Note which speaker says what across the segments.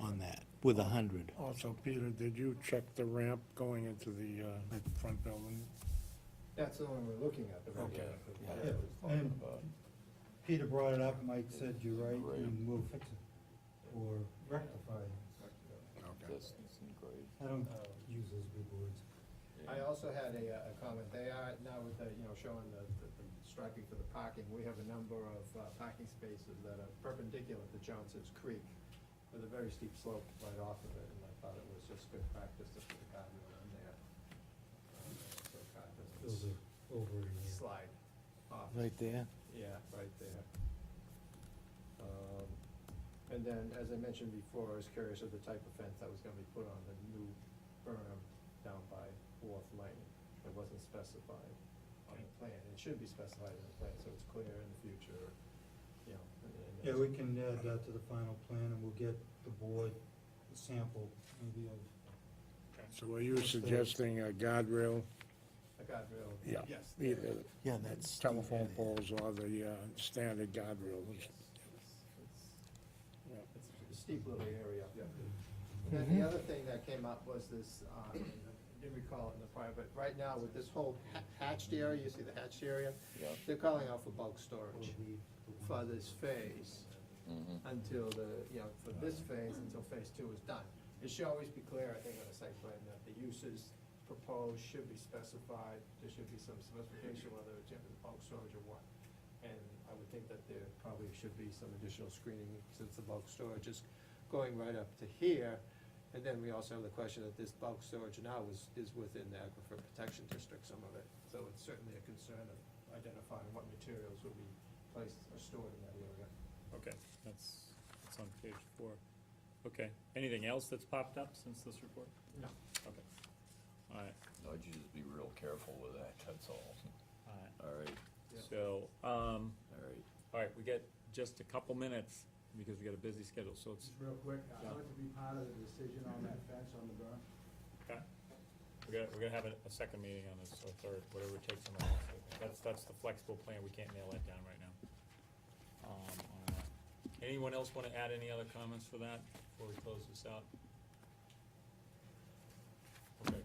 Speaker 1: on that with a hundred.
Speaker 2: Also, Peter, did you check the ramp going into the uh, front building?
Speaker 3: That's the one we're looking at. the right
Speaker 2: Okay.
Speaker 3: now.
Speaker 4: Yeah, and Peter brought it up, Mike said, you're right, and we'll fix it, or rectify it. I don't use those big words.
Speaker 3: I also had a, uh, a comment, they are, now with the, you know, showing the, the the striping for the parking, we have a number of uh, parking spaces that are perpendicular to Johnson's Creek with a very steep slope right off of it, and I thought it was just good practice to put a guardrail on there. um, So a car
Speaker 4: Those
Speaker 3: doesn't
Speaker 4: are over in here.
Speaker 3: slide off.
Speaker 1: Right there?
Speaker 3: Yeah, right there. Um, And then, as I mentioned before, I was curious of the type of fence that was gonna be put on the new berm down by Wharf Lane. It wasn't specified on the plan. It should be specified in the plan, so it's clear in the future, you know. and- and
Speaker 4: Yeah, we can add that to the final plan, and we'll get the board a sample, maybe of,
Speaker 2: So are you suggesting a guardrail,
Speaker 3: A guardrail.
Speaker 2: Yeah.
Speaker 3: Yes.
Speaker 2: either
Speaker 1: Yeah, that's.
Speaker 2: telephone poles or the uh, standard guardrails?
Speaker 3: Yes.
Speaker 2: Yeah.
Speaker 3: It's it's a steep little area. And then the other thing that came up was this, um, I didn't recall it in the prior, but right now with this whole ha- hatched area, you see the hatched area? They're calling out for bulk
Speaker 4: or
Speaker 3: storage
Speaker 4: the.
Speaker 3: for this phase until the, you know, for this phase, until phase two is done. It should always be clear, I think, on the site plan, that the uses proposed should be specified, there should be some specification, whether it's gonna be bulk storage or what. And I would think that there probably should be some additional screening, since the bulk storage is going right up to here. And then we also have the question that this bulk storage now is, is within the aquifer protection district, some of it. So it's certainly a concern of identifying what materials will be placed or stored in that area.
Speaker 5: Okay, that's, that's on page four. Okay, anything else that's popped up since this report?
Speaker 3: No.
Speaker 5: Okay. All right,
Speaker 6: I'd just be real careful with that, that's all.
Speaker 5: all right.
Speaker 6: All right,
Speaker 3: Yeah.
Speaker 5: So, um,
Speaker 6: all right.
Speaker 5: all right, we got just a couple minutes because we got a busy schedule, so it's,
Speaker 7: Just real quick, I'd
Speaker 5: Yeah.
Speaker 7: like to be part of the decision on that fence on the berm.
Speaker 5: okay. We're gonna, we're gonna have a, a second meeting on this, or third, whatever it takes on the last. That's, that's the flexible plan, we can't nail that down right now. Um, on that. Anyone else wanna add any other comments for that before we close this out? Okay,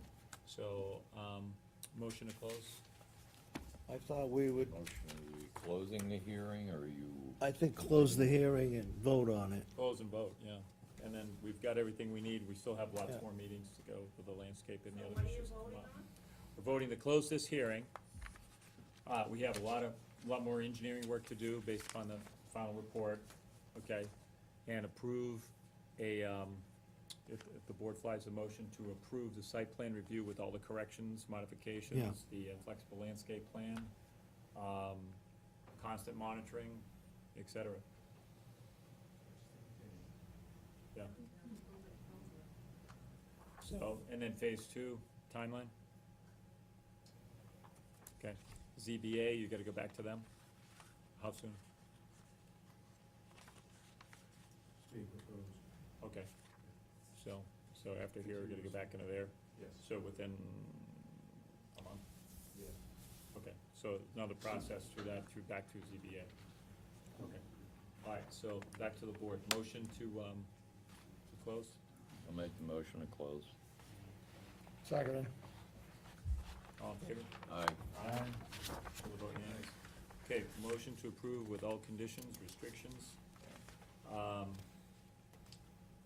Speaker 5: so, um, motion to close?
Speaker 1: I thought we would,
Speaker 6: Motion, are you closing the hearing, or are you?
Speaker 1: I think, close the hearing and vote on it.
Speaker 5: Close and vote, yeah. And then we've got everything we need. We still have lots
Speaker 1: Yeah.
Speaker 5: more meetings to go with the landscape and the
Speaker 8: So
Speaker 5: other
Speaker 8: what are you
Speaker 5: issues. that come
Speaker 8: voting
Speaker 5: up.
Speaker 8: on?
Speaker 5: We're voting to close this hearing. Uh, we have a lot of, lot more engineering work to do based upon the final report, okay? And approve a, um, if, if the board flies a motion to approve the site plan review with all the corrections, modifications, the uh, flexible landscape plan, um, constant monitoring, et cetera. Yeah. So, and then phase two timeline? Okay, ZBA, you gotta go back to them? How soon?
Speaker 7: Speak proposed.
Speaker 5: Okay, so, so after here, we're gonna go back into there,
Speaker 3: Yes.
Speaker 5: so within a month?
Speaker 3: Yeah.
Speaker 5: Okay, so another process through that, through, back through ZBA. Okay, all right, so back to the board, motion to, um, to close?
Speaker 6: I'll make the motion to close.
Speaker 2: Second.
Speaker 5: All in favor?
Speaker 6: Aye.
Speaker 5: Aye. All vote yes. Okay, motion to approve with all conditions, restrictions. Um,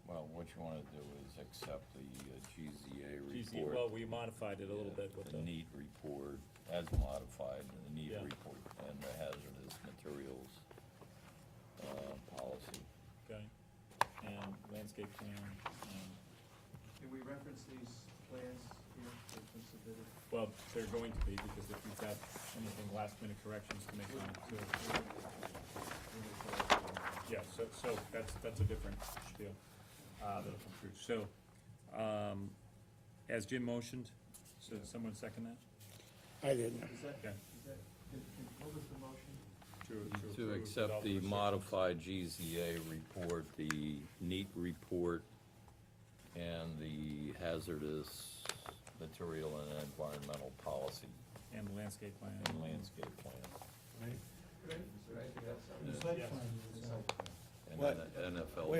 Speaker 6: Well, what you wanna do is accept the uh,
Speaker 5: geez,
Speaker 6: GZA
Speaker 5: you- well,
Speaker 6: report.
Speaker 5: we modified it a little bit with
Speaker 6: The
Speaker 5: the,
Speaker 6: need report, as modified, and the need
Speaker 5: Yeah.
Speaker 6: report, and the hazardous materials, uh, policy.
Speaker 5: okay, and landscape plan, and,
Speaker 3: Can we reference these plans here that have been submitted?
Speaker 5: well, they're going to be, because if you've got anything last minute corrections to make on it, too. Yeah, so, so that's, that's a different spiel, uh, that'll come through. So, um, as Jim motioned, so someone second that?
Speaker 2: I didn't.
Speaker 3: Is that,
Speaker 5: Okay.
Speaker 3: is that, can- can- what was the motion?
Speaker 5: To-
Speaker 6: To
Speaker 5: approve
Speaker 6: accept
Speaker 5: without
Speaker 6: the
Speaker 5: restrictions.
Speaker 6: modified GZA report, the NEAT report, and the hazardous material and environmental policy
Speaker 5: And the landscape plan.
Speaker 6: and landscape plan.
Speaker 3: Right, that's-
Speaker 4: The site plan is, uh,
Speaker 6: and
Speaker 1: What?
Speaker 6: N- NFL.
Speaker 1: Wait